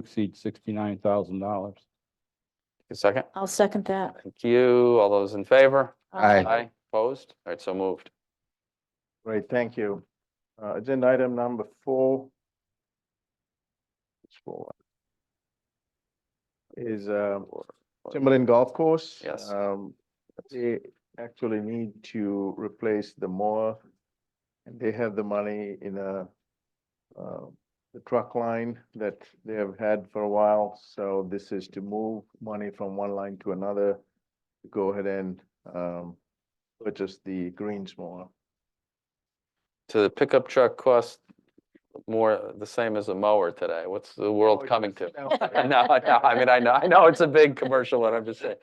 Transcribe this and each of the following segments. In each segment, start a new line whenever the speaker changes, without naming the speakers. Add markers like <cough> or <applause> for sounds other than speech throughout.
exceed sixty-nine thousand dollars.
A second?
I'll second that. Uh,
Thank you. All those in favor?
Aye.
Aye. Opposed? All right, so moved.
Great, thank you. Uh, agenda item number four. Scroll up. Is, um, Timberland Golf Course.
Yes.
Um, they actually need to replace the mower. And they have the money in a, uh, the truck line that they have had for a while. So this is to move money from one line to another. to Go ahead and, um, purchase the greens mower.
To the pickup truck cost more, the same as a mower today. What's the
Oh,
world coming to? <laughs> I know, I know. I mean, I know, I know it's a big commercial, one. I'm just saying.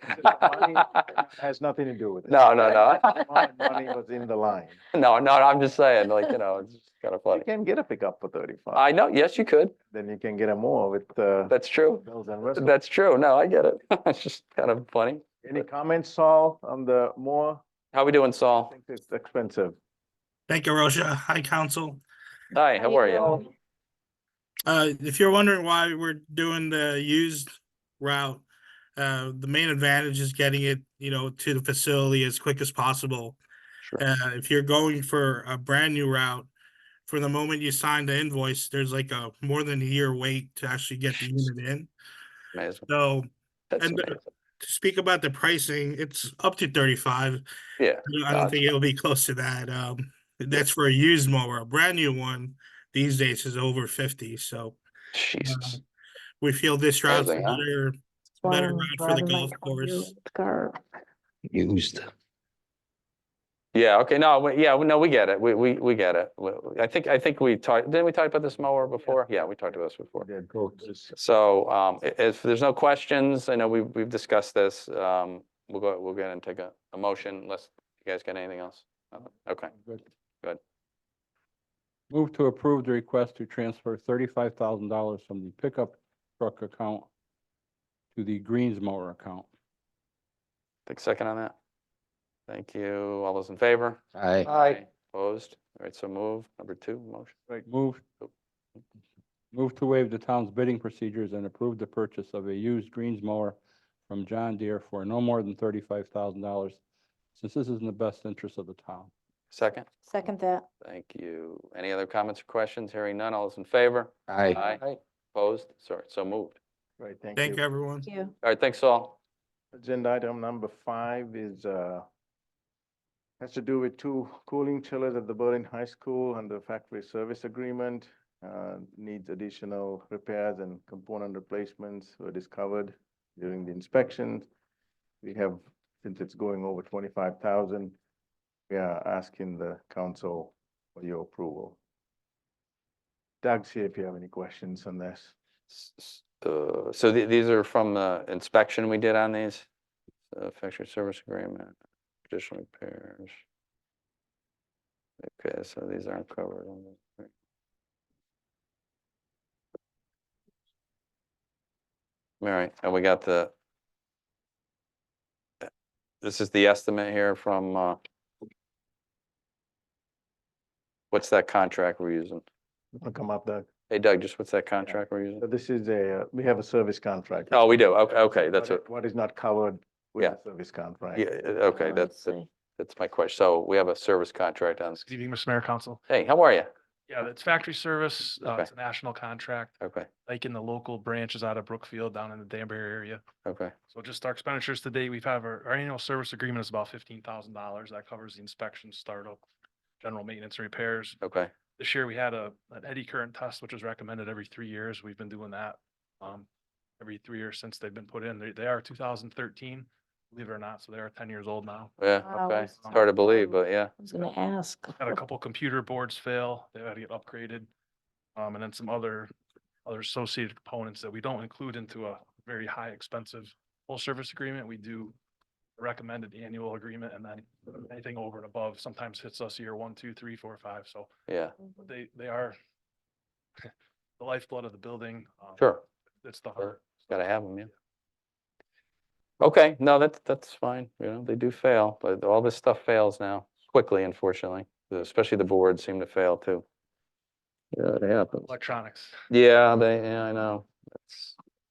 Has nothing to do with
<laughs>
it.
No, no, no.
My Money was in the line.
<laughs> No, no, I'm just saying, like, you know, it's kind of
You
funny.
can get a pickup for thirty-five,
I know, yes, you could.
then you can get a mower with, uh,
That's true.
bells and whistles.
That's true. No, I get it. <laughs> It's just kind of funny.
Any comments, Saul, on the mower?
How we doing,
I
Saul?
think it's expensive.
Thank you, Rosha. Hi, Council.
Hi, how are you?
Hello.
Uh, if you're wondering why we're doing the used route, uh, the main advantage is getting it, you know, to the facility as quick as possible.
Sure.
Uh, if you're going for a brand new route, for the moment you sign the invoice, there's like a more than a year wait to actually get the unit in.
Amazing.
So
That's
and, uh,
amazing.
to speak about the pricing, it's up to thirty-five.
Yeah,
I don't- I don't
Gotcha.
think it'll be close to that. Um, that's for a used mower. A brand new one these days is over fifty, so.
Jesus.
we feel this route's
Amazing, huh?
better.
That's why
Better
I'm
route for the
driving my
golf course.
Car.
used.
Yeah, okay, no, we- yeah, no, we get it. We, we, we get it. We- we- I think, I think we talked, didn't we talk about this mower before? Yeah, we talked about this before.
They're both-
So um, i- if there's no questions, I know we've, we've discussed this. um, We'll go, we'll go ahead and take a, a motion unless you guys got anything else. Nothing? Okay, Good.
Move to approve the request to transfer thirty-five thousand dollars from the pickup truck account to the greens mower account.
take a second on that. Thank you. All those in favor?
Aye.
Opposed? All right, so move. Number two, motion.
Move, move to waive the town's bidding procedures and approve the purchase of a used greens mower from John Deere for no more than thirty-five thousand dollars, since this is in the best interest of the town.
Second,
Second that.
thank you. Any other comments or questions? Hearing none. All those in favor?
Aye.
Aye. Opposed? Sorry, so moved.
Right, thank you.
Thank you, everyone.
Thank you.
All right, thanks all.
Agenda item number five is, uh, has to do with two cooling chillers at the Berlin High School under factory service agreement. Uh, needs additional repairs and component replacements were discovered during the inspection. We have, since it's going over twenty-five thousand, we are asking the council for your approval. Doug's here if you have any questions on this.
S- s- uh, So the- these are from the inspection we did on these? Uh, Factory service agreement, additional repairs. Okay, so these aren't covered on the. right. All right, and we got the. uh, This is the estimate here from, uh, what's that contract we're using?
Wanna come up, Doug?
Hey Doug, just what's that contract we're using?
So This is a, uh, we have a service contract.
Oh, we do. Okay, okay, that's
what
it.
i- What is not covered with
Yeah.
the service contract.
Yeah, uh, okay,
Oh,
that's,
I
that-
see.
that's my question. So we have a service contract on,
Good evening, Mr. Mayor, Council.
hey, how are you?
Yeah, it's factory service. Uh,
Okay.
it's a national contract,
Okay,
like in the local branches out of Brookfield down in the Danbury area.
okay,
So just our expenditures today, we've have our, our annual service agreement is about fifteen thousand dollars. That covers the inspection, startup, general maintenance and repairs.
okay,
This year we had a, an eddy current test, which is recommended every three years. We've been doing that. Um, every three years since they've been put in. They, they are two thousand thirteen, believe it or not. So they are ten years old now.
yeah,
Wow,
okay.
that's
It's Hard to believe, but yeah,
I was gonna ask.
had a couple computer boards fail, they had to get upgraded. Um, and then some other, other associated components that we don't include into a very high expensive full service agreement. We do recommended annual agreement and then anything over and above sometimes hits us year one, two, three, four, five. So
yeah,
they, they are <laughs> the lifeblood of the building. um,
sure,
It's the
Sure.
heart.
gotta have them, yeah. Okay, no, that's, that's fine, you know, they do fail, but all this stuff fails now quickly, unfortunately, especially the boards seem to fail too. Yeah, it happens.
Electronics.
Yeah, they, yeah, I know. That's